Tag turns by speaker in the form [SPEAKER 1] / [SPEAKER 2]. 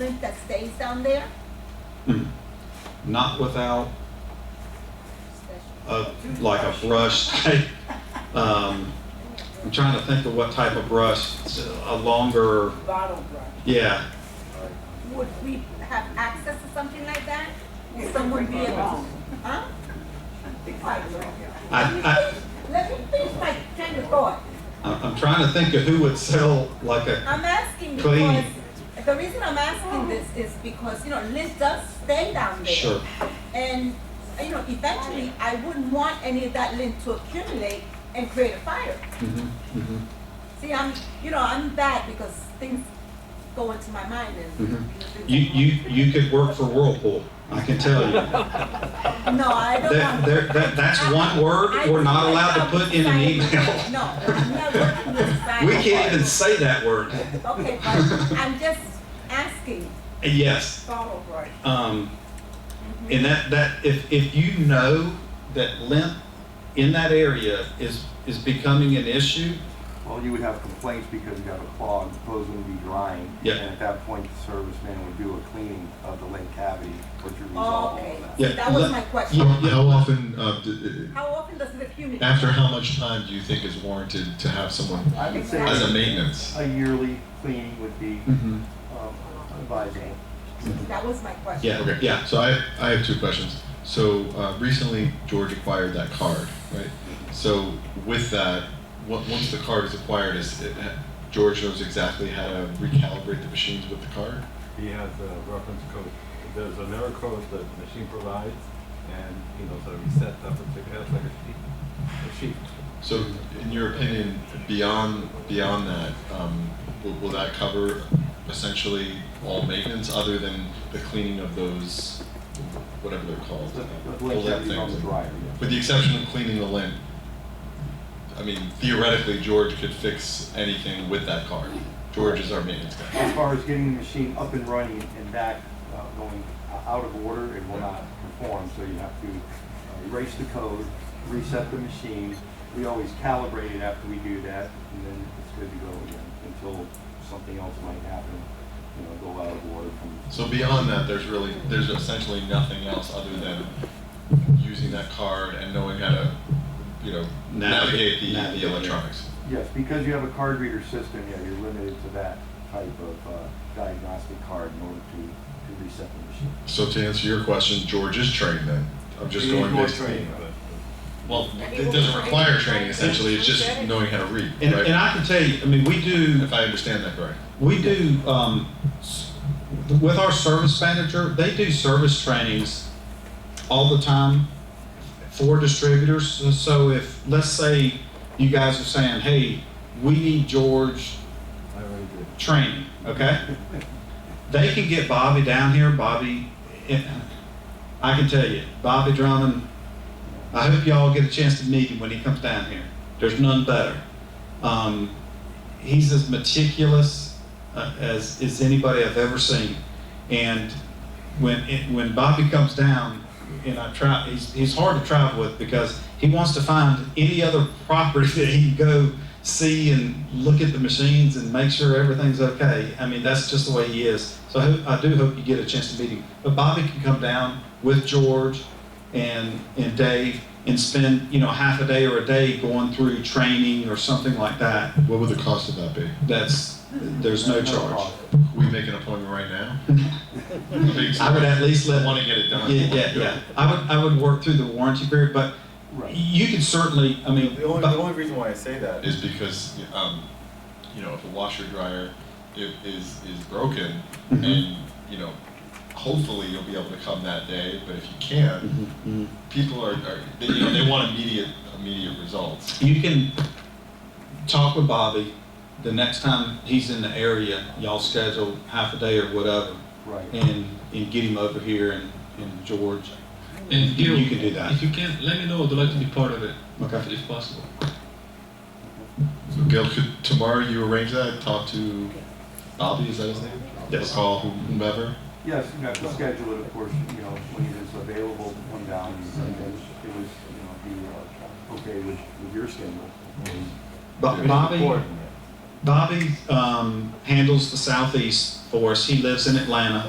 [SPEAKER 1] tank that stays down there?
[SPEAKER 2] Mm. Not without a, like a brush type. Um, I'm trying to think of what type of brush, It's a longer,
[SPEAKER 3] bottle brush.
[SPEAKER 2] yeah.
[SPEAKER 1] Would we have access to something like that? Would someone be able to? Huh?
[SPEAKER 2] I,
[SPEAKER 1] Let me finish my train of thought.
[SPEAKER 2] I, I'm trying to think of who would sell like a,
[SPEAKER 1] I'm asking because,
[SPEAKER 2] Clean.
[SPEAKER 1] the reason I'm asking this is because, you know, Liz does stay down there.
[SPEAKER 2] sure,
[SPEAKER 1] And, you know, eventually, I wouldn't want any of that lint to accumulate and create a fire.
[SPEAKER 2] Mhm, mhm,
[SPEAKER 1] See, I'm, you know, I'm bad because things go into my mind and.
[SPEAKER 2] mhm. You, you, you could work for Whirlpool, I can tell you.
[SPEAKER 1] No, I don't
[SPEAKER 2] That,
[SPEAKER 1] want.
[SPEAKER 2] there, that, that's one word
[SPEAKER 1] I-
[SPEAKER 2] we're not
[SPEAKER 1] I-
[SPEAKER 2] allowed to
[SPEAKER 1] I'm
[SPEAKER 2] put in an
[SPEAKER 1] society.
[SPEAKER 2] email.
[SPEAKER 1] No, I'm not working with society.
[SPEAKER 2] We can't even say that word.
[SPEAKER 1] Okay, but I'm just asking.
[SPEAKER 2] Yes.
[SPEAKER 3] Bottle brush.
[SPEAKER 2] Um, and that, that, if, if you know that lint in that area is, is becoming an issue,
[SPEAKER 4] Well, you would have complaints because you have a clog, the hose would be drying.
[SPEAKER 2] Yeah.
[SPEAKER 4] And at that point, the serviceman would do a cleaning of the lake cavity, which would resolve
[SPEAKER 1] Oh,
[SPEAKER 4] all
[SPEAKER 1] Okay,
[SPEAKER 4] of that.
[SPEAKER 2] Yeah,
[SPEAKER 1] that was
[SPEAKER 2] let-
[SPEAKER 1] my question.
[SPEAKER 5] How how often, uh, d-
[SPEAKER 1] How often does it accumulate?
[SPEAKER 5] after how much time do you think is warranted to have someone
[SPEAKER 4] I would say
[SPEAKER 5] as a maintenance?
[SPEAKER 4] a yearly cleaning would be
[SPEAKER 2] Mhm.
[SPEAKER 4] um, advisable.
[SPEAKER 1] That was my question.
[SPEAKER 2] yeah,
[SPEAKER 5] Okay.
[SPEAKER 2] yeah.
[SPEAKER 5] So I, I have two questions. So uh, recently George acquired that card, right? So with that, on- once the card is acquired, is it, George knows exactly how to recalibrate the machines with the card?
[SPEAKER 6] He has a reference code. There's an error code that the machine provides, and he knows how to reset that particular, it's like a sheet, a sheet.
[SPEAKER 5] So in your opinion, beyond, beyond that, um, will, will that cover essentially all maintenance other than the cleaning of those, whatever they're called?
[SPEAKER 4] The the
[SPEAKER 5] All
[SPEAKER 4] lake
[SPEAKER 5] that
[SPEAKER 4] cavity on the
[SPEAKER 5] things.
[SPEAKER 4] dryer, yeah.
[SPEAKER 5] With the exception of cleaning the lint, I mean, theoretically, George could fix anything with that car. George is our maintenance guy.
[SPEAKER 4] As far as getting the machine up and running and back, uh, going out of order, it will not perform, so you have to uh, erase the code, reset the machine. We always calibrate it after we do that, and then it's good to go again, until something else might happen, you know, go out of order from.
[SPEAKER 5] So beyond that, there's really, there's essentially nothing else other than using that card and knowing how to, you know,
[SPEAKER 2] Navigate-
[SPEAKER 5] navigate the,
[SPEAKER 2] navigate,
[SPEAKER 5] the
[SPEAKER 2] yeah.
[SPEAKER 5] electronics.
[SPEAKER 4] Yes, because you have a card reader system, yeah, you're limited to that type of uh, diagnostic card in order to, to reset the machine.
[SPEAKER 5] So to answer your question, George is trained then. I'm just
[SPEAKER 6] He
[SPEAKER 5] going
[SPEAKER 6] enjoys
[SPEAKER 5] next.
[SPEAKER 6] training, but-
[SPEAKER 5] Well, it doesn't require training essentially, it's just knowing how to read,
[SPEAKER 2] And, and
[SPEAKER 5] right?
[SPEAKER 2] I can tell you, I mean, we do,
[SPEAKER 5] If I understand that correctly.
[SPEAKER 2] we do, um, s- with our service manager, they do service trainings all the time for distributors. So if, let's say you guys are saying, hey, we need George
[SPEAKER 6] I already did.
[SPEAKER 2] training, okay? They can get Bobby down here, Bobby, eh, I can tell you, Bobby Drummond, I hope y'all get a chance to meet him when he comes down here. There's none better. Um, he's as meticulous uh, as, as anybody I've ever seen. And when, it, when Bobby comes down, and I try, he's, he's hard to travel with because he wants to find any other property that he can go see and look at the machines and make sure everything's okay. I mean, that's just the way he is. So I, hope, I do hope you get a chance to meet him. But Bobby can come down with George and, and Dave and spend, you know, half a day or a day going through training or something like that.
[SPEAKER 5] What would the cost of that be?
[SPEAKER 2] That's, there's no charge.
[SPEAKER 5] We make an appointment right now? I
[SPEAKER 2] I would at least let,
[SPEAKER 5] Want to get it
[SPEAKER 2] yeah,
[SPEAKER 5] done.
[SPEAKER 2] yeah, yeah. I would, I would work through the warranty period, but
[SPEAKER 4] Right.
[SPEAKER 2] you can certainly, I mean,
[SPEAKER 6] The only,
[SPEAKER 2] but-
[SPEAKER 6] the only reason why I say that is
[SPEAKER 5] Is because, um, you know, if a washer dryer is, is, is broken
[SPEAKER 2] Mhm.
[SPEAKER 5] and, you know, hopefully you'll be able to come that day, but if you can't,
[SPEAKER 2] Mhm, mhm.
[SPEAKER 5] people are, are, they, you know, they want immediate, immediate results.
[SPEAKER 2] you can talk with Bobby the next time he's in the area. Y'all schedule half a day or whatever,
[SPEAKER 4] Right.
[SPEAKER 2] and and get him over here and, and George.
[SPEAKER 7] And
[SPEAKER 2] You-
[SPEAKER 7] Gil,
[SPEAKER 2] you can do that.
[SPEAKER 7] If you can, let me know. I'd like to be part of it,
[SPEAKER 2] Okay.
[SPEAKER 7] if possible.
[SPEAKER 5] So Gail, could tomorrow you arrange that, talk to Bobby, is that his name?
[SPEAKER 2] Yes.
[SPEAKER 5] Call whomever?
[SPEAKER 4] Yes, you have to schedule it, of course, you know, when it is available to come down, and then it was, you know, be uh, okay with, with your schedule.
[SPEAKER 2] Bo-
[SPEAKER 6] it's
[SPEAKER 2] Bobby
[SPEAKER 6] important.
[SPEAKER 2] Bobby um, handles the southeast for us. He lives in Atlanta.